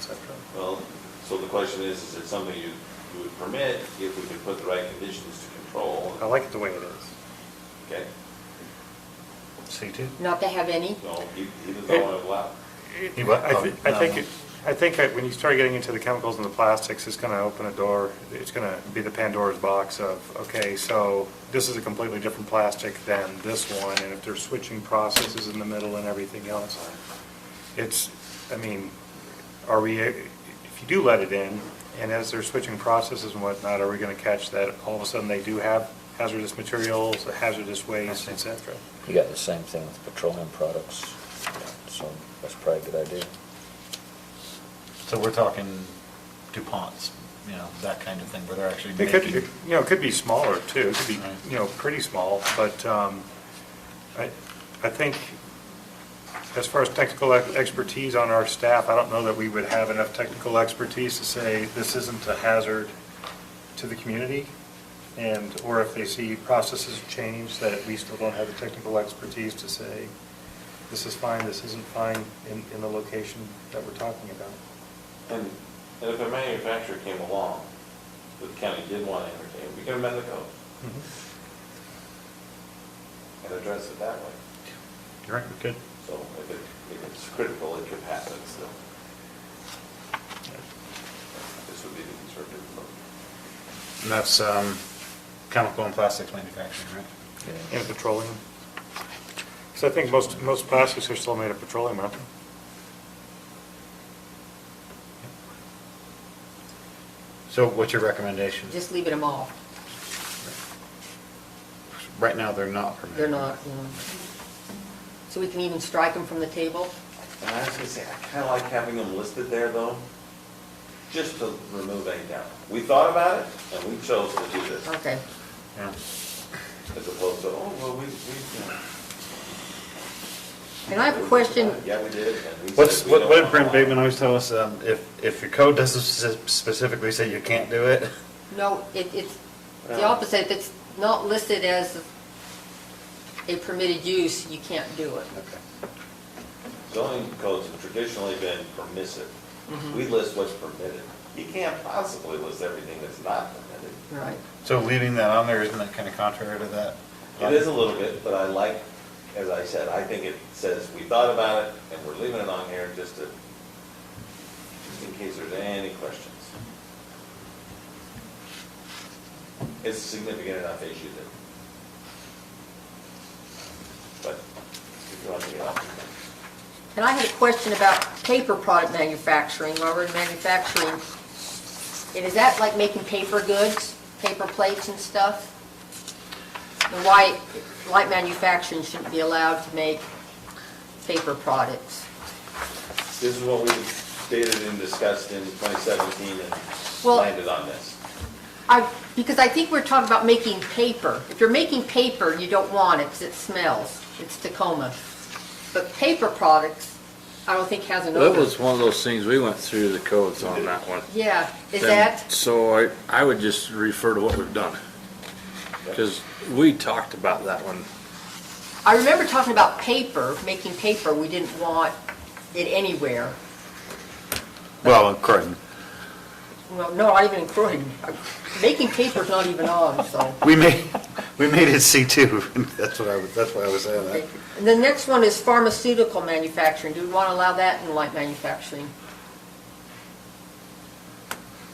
cetera. Well, so the question is, is it something you, you would permit if we could put the right conditions to control? I like it the way it is. Okay, C2? Not to have any? no, he, he doesn't want to allow. You what? I thi- I Oh, think, no. it- I think that when you start getting into the chemicals and the plastics, it's gonna open a door, it's gonna be the Pandora's box of, okay, so this is a completely different plastic than this one, and if they're switching processes in the middle and everything else, it's, I mean, are we, if you do let it in, and as they're switching processes and whatnot, are we gonna catch that all of a sudden they do have hazardous materials, hazardous waste, et cetera? You got the same thing with petroleum products, so that's probably a good idea. So we're talking DuPonts, you know, that kind of thing, where they're actually It could, making. it- you know, it could be smaller too, it could be, Right. you know, pretty small, but um, I, I think as far as technical ex- expertise on our staff, I don't know that we would have enough technical expertise to say this isn't a hazard to the community. And, or if they see processes change, that we still don't have the technical expertise to say this is fine, this isn't fine in, in the location that we're talking about. And, and if a manufacturer came along that the county did want to entertain, we can amend the code Mm-hmm. and address it that way. You're right, we could. So if it, if it's critical, it could happen still. This would be the conservative approach. And that's um, chemical and plastics manufacturing, right? Yeah. And petroleum. Because I think most, most plastics are still made of petroleum, aren't they? So what's your recommendation? Just leaving them all? Right now, they're not permitted. They're not, you know. So we can even strike them from the table? And I was gonna say, I kind of like having them listed there though, just to remove any doubt. We thought about it and we chose to do this. Okay. Yeah. As opposed to, oh, well, we, we, you know. And I have a question. Yeah, we did. and we said What's, we what don't what did want Brent to. Bateman always tell us? um, If, if your code doesn't spe- specifically say you can't do it, No, it, it's the Yeah. opposite. If it's not listed as a permitted use, you can't do it. Zoning codes have traditionally been permissive. Mm-hmm. We list what's permitted. You can't possibly list everything that's not permitted. Right. so leaving that on there, isn't that kind of contrary to that? It is a little bit, but I like, as I said, I think it says we thought about it and we're leaving it on here just to, just in case there's any questions. It's a significant enough issue that. But if you want to get off. And I had a question about paper product manufacturing, while we're in manufacturing. And is that like making paper goods, paper plates and stuff? And why light manufacturing shouldn't be allowed to make paper products? This is what we stated and discussed in 2017 and Well- landed on this. I, because I think we're talking about making paper. If you're making paper, you don't want it because it smells. It's Tacoma. But paper products, I don't think has an odor. That was one of those things, we went through the codes on that one. Yeah, is And that? So I, I would just refer to what we've done. Because we talked about that one. I remember talking about paper, making paper, we didn't want it anywhere. Well, according, Well, no, not even in Croydon. Making paper's not even on, so. we made, we made it C2. That's what I, was- that's why I was saying that. And the next one is pharmaceutical manufacturing. Do we want to allow that in light manufacturing?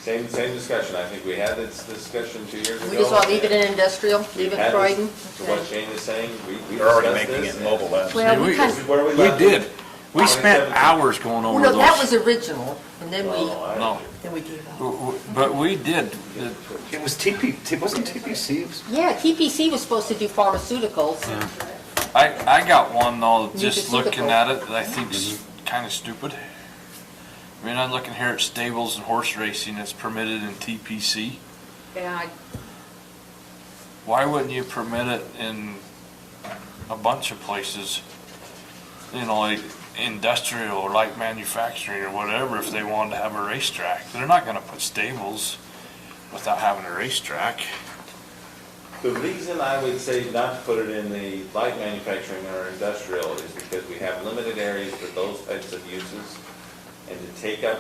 Same, same discussion. I think we had this discussion two years ago. We just want to leave it in industrial, We leave it had Croydon? this- To what Okay. Shane is saying, we, we They're already discussed making this it mobile and- labs. Well, Did we we- kind Where of, we We left did. it. We spent 27. hours going well, over no, those. that was original, and then No, we, I- No. then we gave up. W- w- But we did, the- It was TP, T- wasn't TPC? Yeah, TPC was supposed to do pharmaceuticals. I, I got one though, You just just look looking at at it, that I think's Mm-hmm. kinda stupid. I mean, I'm looking here at stables and horse racing, it's permitted in TPC. Yeah, Why wouldn't you permit it in a bunch of places? You know, like industrial or light manufacturing or whatever, if they wanted to have a racetrack. They're not gonna put stables without having a racetrack. The reason I would say not to put it in the light manufacturing or industrial is because we have limited areas for those types of uses. And to take up